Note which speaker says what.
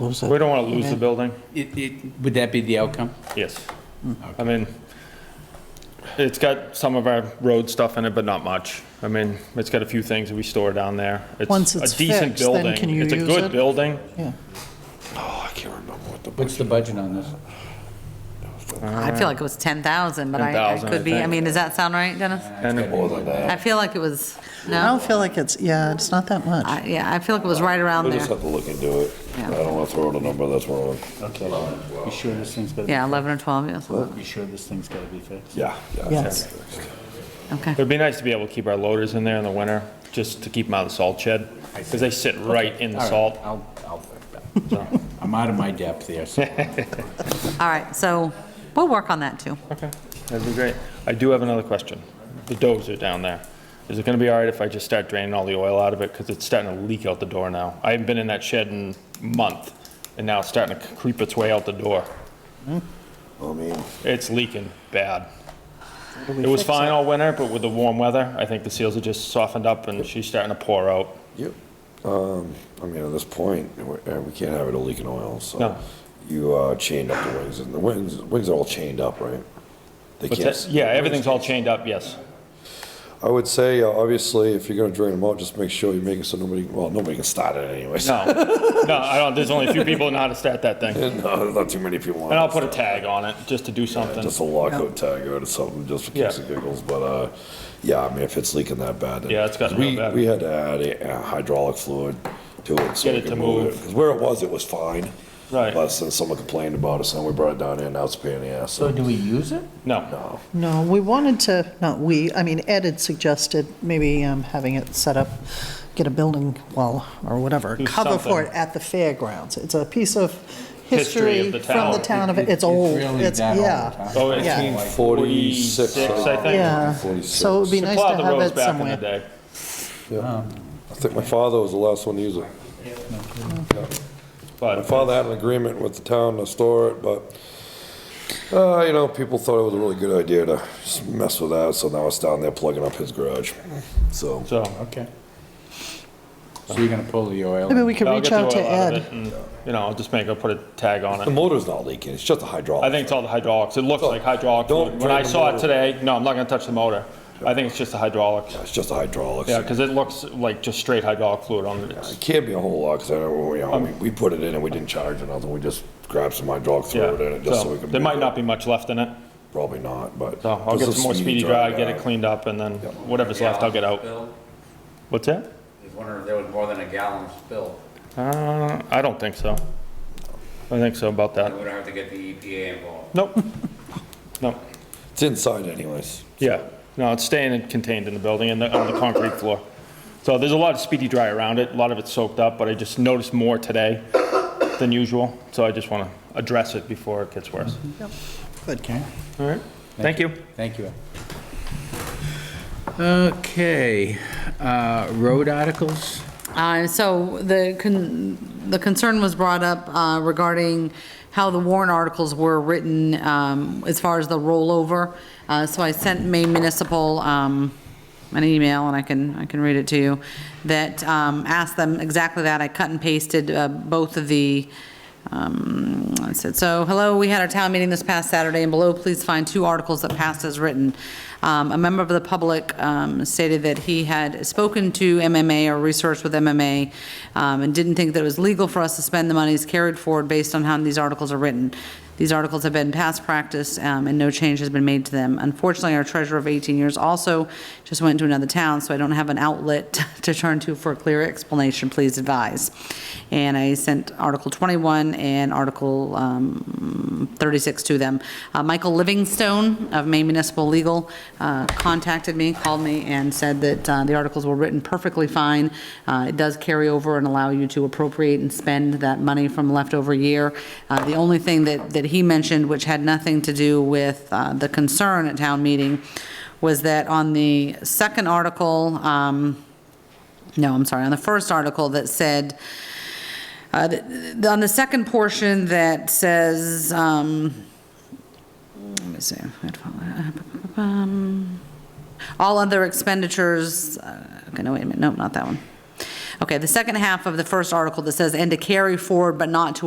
Speaker 1: lose
Speaker 2: We
Speaker 1: it.
Speaker 2: don't want to lose the building.
Speaker 3: It, it, would that be the outcome?
Speaker 2: Yes. I mean, it's got some of our road stuff in it, but not much. I mean, it's got a few things that we store down there.
Speaker 1: Once
Speaker 2: a
Speaker 1: it's
Speaker 2: decent
Speaker 1: fixed, then
Speaker 2: building.
Speaker 1: can you
Speaker 2: It's a
Speaker 1: use it?
Speaker 2: good building.
Speaker 1: Yeah.
Speaker 3: What's the budget on this?
Speaker 4: I feel like it was 10,000, but I I
Speaker 2: 10,000, I
Speaker 4: could be, I
Speaker 2: think.
Speaker 4: mean, does that sound right, Dennis?
Speaker 2: And
Speaker 4: I feel like it was,
Speaker 1: I
Speaker 4: no?
Speaker 1: don't feel like it's, yeah, it's not that much.
Speaker 4: I- Yeah, I feel like it was right around
Speaker 5: We'll just
Speaker 4: there.
Speaker 5: have to look into it.
Speaker 4: Yeah.
Speaker 5: I don't want to throw out a number that's wrong.
Speaker 6: Okay, you sure this thing's gotta,
Speaker 4: Yeah, 11 or 12, yes.
Speaker 6: you sure this thing's gotta be fixed?
Speaker 5: Yeah.
Speaker 1: Yes.
Speaker 4: Okay.
Speaker 2: it'd be nice to be able to keep our loaders in there in the winter, just to keep them out of the salt shed, because they sit right in the
Speaker 3: All
Speaker 2: salt.
Speaker 3: right, I'll, I'll, I'm out of my depth there, so.
Speaker 4: All right, so we'll work on that, too.
Speaker 2: Okay, that'd be great. I do have another question. The dozer down there, is it gonna be all right if I just start draining all the oil out of it? Because it's starting to leak out the door now. I haven't been in that shed in a month, and now it's starting to creep its way out the door.
Speaker 5: I mean,
Speaker 2: It's leaking bad. It was fine all winter, but with the warm weather, I think the seals are just softened up and she's starting to pour out.
Speaker 5: yep. Um, I mean, at this point, we- uh, we can't have it a leaking oil, so.
Speaker 2: No.
Speaker 5: You, uh, chained up the wings, and the wings, wings are all chained up, right? They
Speaker 2: But
Speaker 5: can't.
Speaker 2: that-
Speaker 5: s-
Speaker 2: Yeah, everything's all chained up, yes.
Speaker 5: I would say, uh, obviously, if you're gonna drain them out, just make sure you make it so nobody, well, nobody can start it anyways.
Speaker 2: No, no, I don't, there's only a few people know how to start that thing. And
Speaker 5: No, not too many people want.
Speaker 2: I'll put a tag on it, just to do something.
Speaker 5: Just a lockout tag or something, just for kicks
Speaker 2: Yeah.
Speaker 5: and giggles, but, uh, yeah, I mean, if it's leaking that bad. then-
Speaker 2: Yeah, it's gotten
Speaker 5: 'cause we-
Speaker 2: real bad.
Speaker 5: We had to add a uh, hydraulic fluid to it.
Speaker 2: Get
Speaker 5: so we
Speaker 2: it
Speaker 5: could
Speaker 2: to move.
Speaker 5: Because where it was, it was fine.
Speaker 2: Right.
Speaker 5: But since someone complained about it, so we brought it down here, now it's a pain in the ass.
Speaker 3: So do we use it?
Speaker 2: No,
Speaker 5: No,
Speaker 1: No, we wanted to, not we, I mean, Ed had suggested maybe um, having it set up, get a building wall or whatever,
Speaker 2: Do
Speaker 1: cover for it
Speaker 2: something.
Speaker 1: at the fairgrounds. It's a piece of
Speaker 2: History of
Speaker 1: history
Speaker 2: the
Speaker 1: from the
Speaker 2: town.
Speaker 1: town of,
Speaker 3: It-
Speaker 1: it's old.
Speaker 3: really
Speaker 1: It's,
Speaker 3: that old,
Speaker 1: yeah,
Speaker 3: huh?
Speaker 2: Oh, it's
Speaker 1: Yeah.
Speaker 2: mean
Speaker 5: 46,
Speaker 2: 46, I think.
Speaker 1: yeah. So it would be nice
Speaker 2: Plow
Speaker 1: to
Speaker 2: the
Speaker 1: have
Speaker 2: roads
Speaker 1: it
Speaker 2: back in the
Speaker 1: somewhere.
Speaker 2: day.
Speaker 5: I think my father was the last one to use it. My
Speaker 2: But,
Speaker 5: father had an agreement with the town to store it, but, uh, you know, people thought it was a really good idea to just mess with that, so now it's down there plugging up his garage, so.
Speaker 2: so,
Speaker 3: Okay. So you're gonna pull the oil?
Speaker 1: Maybe we could
Speaker 2: I'll
Speaker 1: reach
Speaker 2: get the
Speaker 1: out to
Speaker 2: oil out of
Speaker 1: Ed.
Speaker 2: it and, you know, I'll just make, I'll put a tag on
Speaker 5: The
Speaker 2: it.
Speaker 5: motor's not leaking, it's just a hydraulic.
Speaker 2: I think it's all the hydraulics. It looks like hydraulic.
Speaker 5: don't
Speaker 2: fluid. When
Speaker 5: drain
Speaker 2: I
Speaker 5: the
Speaker 2: saw it
Speaker 5: motor.
Speaker 2: today, no, I'm not gonna touch the motor. I think it's just the hydraulics.
Speaker 5: It's just a hydraulic.
Speaker 2: Yeah, because it looks like just straight hydraulic fluid on
Speaker 5: It
Speaker 2: it.
Speaker 5: can't be a whole lot, because I know, you
Speaker 2: Um,
Speaker 5: know, we, we put it in and we didn't charge it nothing, we just grabbed some hydraulic
Speaker 2: Yeah,
Speaker 5: fluid in it just so we
Speaker 2: so
Speaker 5: could.
Speaker 2: there might
Speaker 5: move it.
Speaker 2: not be much left in it.
Speaker 5: Probably not, but.
Speaker 2: So I'll get
Speaker 5: Just a
Speaker 2: some more speedy dry, get it
Speaker 5: guy.
Speaker 2: cleaned up, and then whatever's left, I'll get out.
Speaker 7: Bill,
Speaker 2: What's that?
Speaker 7: I was wondering if there was more than a gallon spilled.
Speaker 2: Uh, I don't think so. I think so about
Speaker 7: We
Speaker 2: that.
Speaker 7: don't have to get the EPA involved.
Speaker 2: Nope. Nope.
Speaker 5: It's inside anyways.
Speaker 2: Yeah, no, it's staying in- contained in the building and the- on the concrete floor. So there's a lot of speedy dry around it, a lot of it's soaked up, but I just noticed more today than usual, so I just want to address it before it gets worse.
Speaker 3: Okay,
Speaker 2: All right, thank you.
Speaker 3: thank you. Okay, uh, road articles?
Speaker 4: Uh, So the, con- the concern was brought up uh, regarding how the warrant articles were written um, as far as the rollover. Uh, So I sent Maine Municipal um, an email, and I can, I can read it to you, that um, asked them exactly that. I cut and pasted uh, both of the um, I said, so, hello, we had our town meeting this past Saturday, and below, please find two articles that passed as written. Um, A member of the public um, stated that he had spoken to MMA or researched with MMA um, and didn't think that it was legal for us to spend the monies carried forward based on how these articles are written. These articles have been past practice, um, and no change has been made to them. Unfortunately, our treasurer of 18 years also just went to another town, so I don't have an outlet to turn to for a clear explanation, please advise. And I sent Article 21 and Article um, 36 to them. Uh, Michael Livingstone of Maine Municipal Legal uh, contacted me, called me, and said that uh, the articles were written perfectly fine. Uh, It does carry over and allow you to appropriate and spend that money from leftover year. Uh, The only thing that, that he mentioned, which had nothing to do with uh, the concern at town meeting, was that on the second article, um, no, I'm sorry, on the first article that said, uh, th- th- on the second portion that says, um, let me see. Um, All other expenditures, uh, okay, no, wait a minute, nope, not that one. Okay, the second half of the first article that says, and to carry forward but not to